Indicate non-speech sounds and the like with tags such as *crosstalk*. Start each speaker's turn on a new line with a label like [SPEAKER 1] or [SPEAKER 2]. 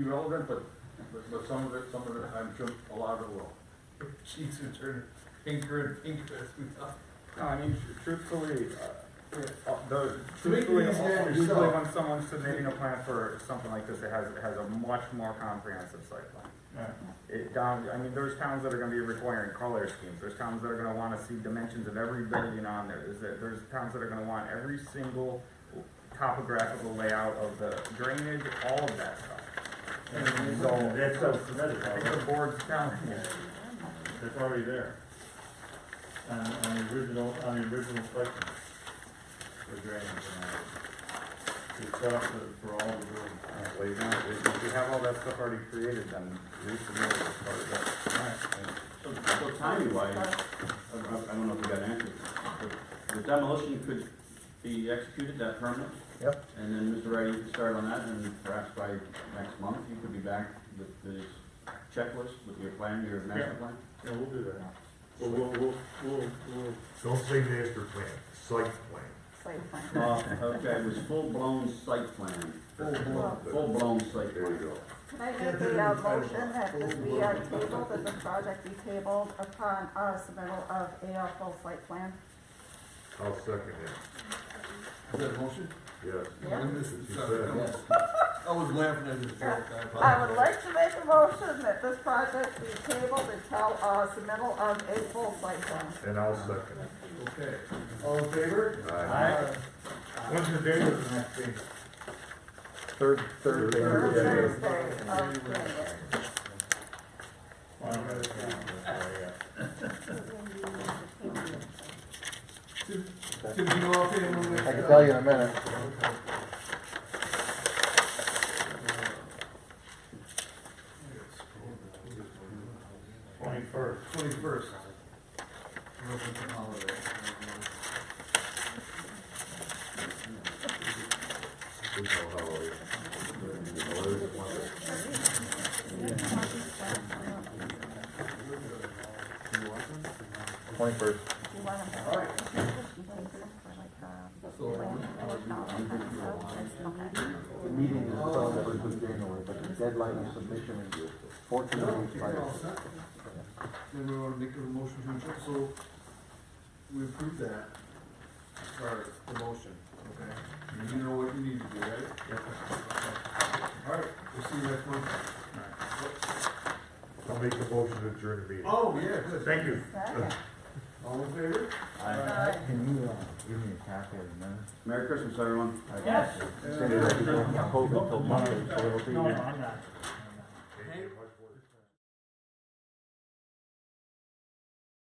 [SPEAKER 1] be relevant, but, but, but some of it, some of it, I'm sure a lot of it will.
[SPEAKER 2] She's a turner, pinker and pinker as we talk.
[SPEAKER 3] No, I mean, tr- truthfully, uh, uh, the,
[SPEAKER 2] To make it
[SPEAKER 3] truthfully, uh,
[SPEAKER 2] easier on
[SPEAKER 3] usually
[SPEAKER 2] yourself.
[SPEAKER 3] when someone's submitting a plan for something like this, it has, it has a much more comprehensive site plan. It down, I mean, there's towns that are gonna be requiring color schemes, there's towns that are gonna wanna see dimensions of every building on there, there's, there's towns that are gonna want every single topographical layout of the drainage, all of that stuff.
[SPEAKER 4] And so, that's so submitted,
[SPEAKER 3] I think the
[SPEAKER 4] already.
[SPEAKER 3] board's telling you,
[SPEAKER 4] that's already there. On, on the original, on the original section. For drainage and all. It's up for- for all the room.
[SPEAKER 3] Alright, well, you know, if if you have all that stuff already created, then resubmit it as part of that.
[SPEAKER 5] So so timing wise, I, I I don't know if you got an answer, but the demolition could be executed, that permit?
[SPEAKER 2] Yep.
[SPEAKER 5] And then Mr. Wright, you can start on that, and perhaps by next month, you could be back with this checklist, with your plan, your master plan?
[SPEAKER 4] Yeah, we'll do that. We'll, we'll, we'll, we'll, we'll
[SPEAKER 2] Don't say master plan, site plan.
[SPEAKER 6] Site plan.
[SPEAKER 5] Uh, okay, it was full-blown site plan, full-blown site
[SPEAKER 2] There you
[SPEAKER 5] plan.
[SPEAKER 2] go.
[SPEAKER 6] Can I make the uh, motion that this be uh, tabled, that the project be tabled upon uh, submittal of a full site plan?
[SPEAKER 2] I'll second it,
[SPEAKER 1] Is that a motion?
[SPEAKER 2] yes.
[SPEAKER 6] Yeah.
[SPEAKER 2] She said,
[SPEAKER 1] I was laughing at this.
[SPEAKER 6] I would like to make a motion that this project be tabled until uh, submittal of a full site plan.
[SPEAKER 2] And I'll second it.
[SPEAKER 1] Okay, all in favor?
[SPEAKER 2] Aye.
[SPEAKER 4] Alright. When's the date of the next thing?
[SPEAKER 3] Third, third thing.
[SPEAKER 6] Third
[SPEAKER 2] yeah.
[SPEAKER 6] Thursday of January.
[SPEAKER 4] Well, I'm gonna- yeah.
[SPEAKER 6] *laughs*
[SPEAKER 2] Tim, you know if anyone
[SPEAKER 7] I can tell you in a minute.
[SPEAKER 4] Twenty-first.
[SPEAKER 2] Twenty-first. We know how it is. You know, it's one of-
[SPEAKER 7] Twenty-first.
[SPEAKER 6] Do you want to?
[SPEAKER 7] The meeting is celebrated in January, but the deadline of submission is fourteen weeks prior.
[SPEAKER 1] Then we wanna make a motion to adjourn, so we approve that, or the motion, okay? You know what you need to do, right? All right, we'll see you next month.
[SPEAKER 2] I'll make a motion to adjourn the meeting.
[SPEAKER 1] Oh, yeah, good.
[SPEAKER 2] Thank you.
[SPEAKER 1] All in favor?
[SPEAKER 7] Can you, uh, give me a copy of the minutes?
[SPEAKER 5] Merry Christmas, everyone.
[SPEAKER 4] Yes.
[SPEAKER 7] Send it to me, I'll hold it till Monday, so it'll be.
[SPEAKER 4] No, no, I'm not.